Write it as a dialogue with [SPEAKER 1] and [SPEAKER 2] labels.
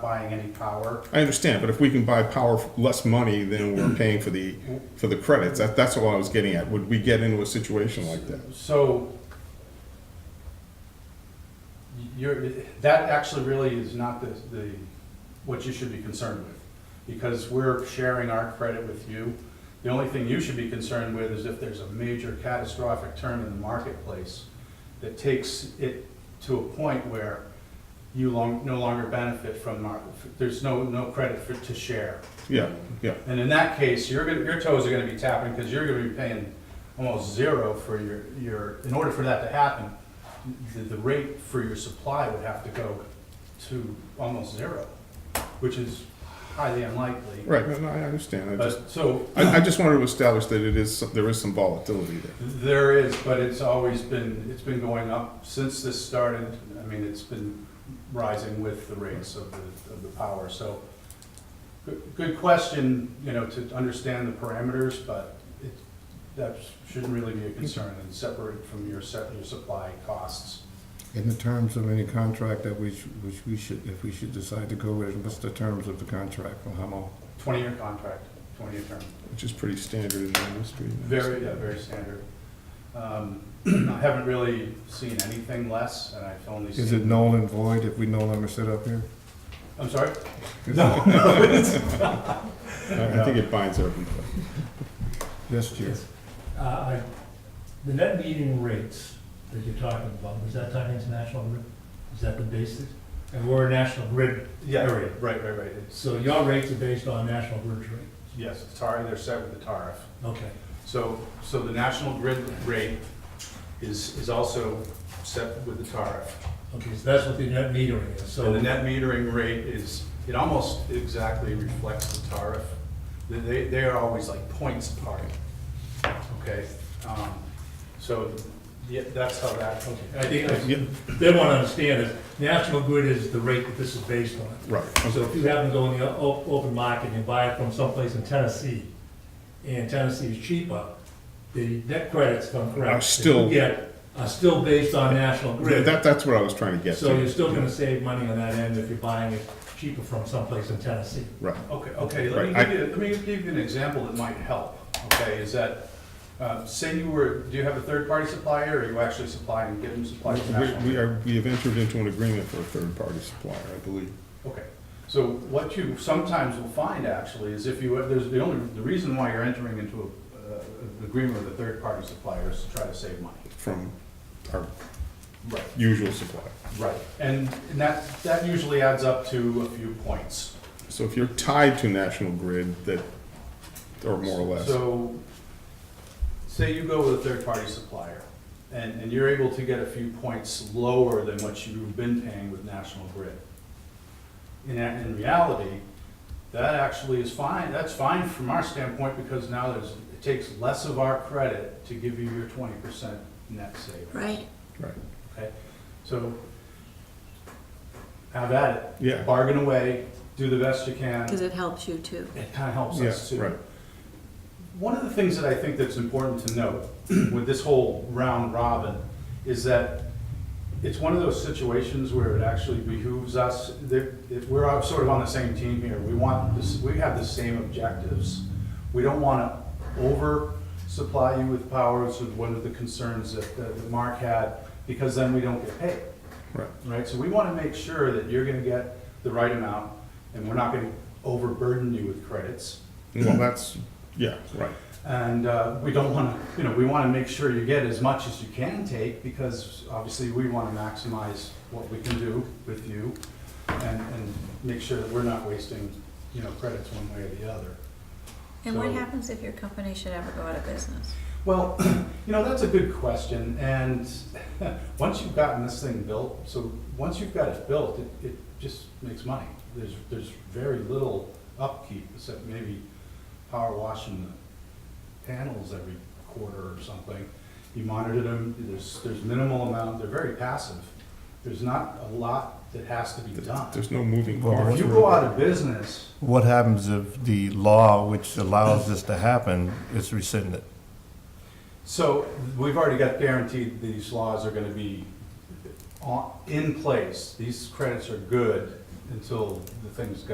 [SPEAKER 1] buying any power.
[SPEAKER 2] I understand, but if we can buy power for less money than we're paying for the, for the credits, that, that's all I was getting at. Would we get into a situation like that?
[SPEAKER 1] So you're, that actually really is not the, the, what you should be concerned with. Because we're sharing our credit with you. The only thing you should be concerned with is if there's a major catastrophic turn in the marketplace that takes it to a point where you long, no longer benefit from, mar- there's no, no credit for, to share.
[SPEAKER 2] Yeah, yeah,
[SPEAKER 1] And in that case, you're gonna, your toes are gonna be tapping, because you're gonna be paying almost zero for your, your, in order for that to happen, the, the rate for your supply would have to go to almost zero, which is highly unlikely.
[SPEAKER 2] right, no, no, I understand. I just,
[SPEAKER 1] But, so,
[SPEAKER 2] I, I just wanted to establish that it is, there is some volatility there.
[SPEAKER 1] there is, but it's always been, it's been going up since this started. I mean, it's been rising with the rates of the, of the power, so. good- Good question, you know, to understand the parameters, but it, that shouldn't really be a concern and separate from your set, your supply costs.
[SPEAKER 3] In the terms of any contract that we, sh- which we should, if we should decide to go with, what's the terms of the contract for how long?
[SPEAKER 1] Twenty-year contract, twenty-year term.
[SPEAKER 2] which is pretty standard in the industry.
[SPEAKER 1] Very, yeah, very standard. Um, I haven't really seen anything less, and I've only seen.
[SPEAKER 3] Is it null and void if we no longer sit up here?
[SPEAKER 1] I'm sorry?
[SPEAKER 2] I I think it binds everybody.
[SPEAKER 3] Yes, Chair.
[SPEAKER 4] Uh, I- The net metering rates that you're talking about, is that tied into national grid? Is that the basis? And we're a national grid
[SPEAKER 1] Yeah,
[SPEAKER 4] area,
[SPEAKER 1] right, right, right. It's-
[SPEAKER 4] so your rates are based on national grid rate.
[SPEAKER 1] Yes, the tariff, they're set with the tariff.
[SPEAKER 4] Okay,
[SPEAKER 1] So, so the national grid rate is, is also set with the tariff.
[SPEAKER 4] okay, so that's what the net metering is, so.
[SPEAKER 1] And the net metering rate is, it almost exactly reflects the tariff. They- They, they are always like points apart, okay? Um, So, yeah, that's how that,
[SPEAKER 4] Okay, I think,
[SPEAKER 2] Yeah.
[SPEAKER 4] I- they want to understand is, national grid is the rate that this is based on.
[SPEAKER 2] Right.
[SPEAKER 4] So if you happen to go in the o- open market and you buy it from someplace in Tennessee, and Tennessee is cheaper, the net credits, if I'm correct.
[SPEAKER 2] Are still-
[SPEAKER 4] that you get are still based on national
[SPEAKER 2] Yeah,
[SPEAKER 4] grid.
[SPEAKER 2] That, that's what I was trying to get to.
[SPEAKER 4] So you're still gonna save money on that end if you're buying it cheaper from someplace in Tennessee.
[SPEAKER 2] Right,
[SPEAKER 1] Okay, okay, let me
[SPEAKER 2] Right,
[SPEAKER 1] give you, let me give you an example that might help, okay, is that, uh, say you were, do you have a third-party supplier, or are you actually supplying, getting supplies from national?
[SPEAKER 2] we, we are, we have entered into an agreement for a third-party supplier, I believe.
[SPEAKER 1] Okay, so what you sometimes will find actually is if you, there's the only, the reason why you're entering into a, uh, an agreement with a third-party supplier is to try to save money.
[SPEAKER 2] from our
[SPEAKER 1] Right.
[SPEAKER 2] usual supplier.
[SPEAKER 1] Right, and, and that, that usually adds up to a few points.
[SPEAKER 2] So if you're tied to national grid, that, or more or less,
[SPEAKER 1] So, say you go with a third-party supplier, and, and you're able to get a few points lower than what you've been paying with National Grid. In, a- in reality, that actually is fine, that's fine from our standpoint, because now there's, it takes less of our credit to give you your twenty percent net savings,
[SPEAKER 5] Right.
[SPEAKER 2] right,
[SPEAKER 1] okay? So, have at it,
[SPEAKER 2] yeah,
[SPEAKER 1] bargain away, do the best you can,
[SPEAKER 5] Because it helps you too.
[SPEAKER 1] it kinda helps
[SPEAKER 2] yeah,
[SPEAKER 1] us too.
[SPEAKER 2] right,
[SPEAKER 1] One of the things that I think that's important to note with this whole round robin is that it's one of those situations where it actually behooves us, that, that we're all sort of on the same team here. We want this, we have the same objectives. We don't wanna over supply you with powers with one of the concerns that, that Mark had, because then we don't get paid
[SPEAKER 2] right.
[SPEAKER 1] right? So we want to make sure that you're going to get the right amount, and we're not going to overburden you with credits.
[SPEAKER 2] Well, that's, yeah, right,
[SPEAKER 1] And uh, we don't want to, you know, we want to make sure you get as much as you can take, because obviously we want to maximize what we can do with you, and, and make sure that we're not wasting, you know, credits one way or the other.
[SPEAKER 5] And what
[SPEAKER 1] So-
[SPEAKER 5] happens if your company should ever go out of business?
[SPEAKER 1] Well, you know, that's a good question, and once you've gotten this thing built, so once you've got it built, it, it just makes money. There's, there's very little upkeep, except maybe power washing the panels every quarter or something. You monitor them, there's, there's minimal amount, they're very passive. There's not a lot that has to be done.
[SPEAKER 2] there's no moving
[SPEAKER 3] Well,
[SPEAKER 2] parts.
[SPEAKER 1] If you go out of business,
[SPEAKER 3] What happens if the law which allows this to happen is rescinded?
[SPEAKER 1] So we've already got guaranteed these laws are gonna be on- in place. These credits are good until the thing's got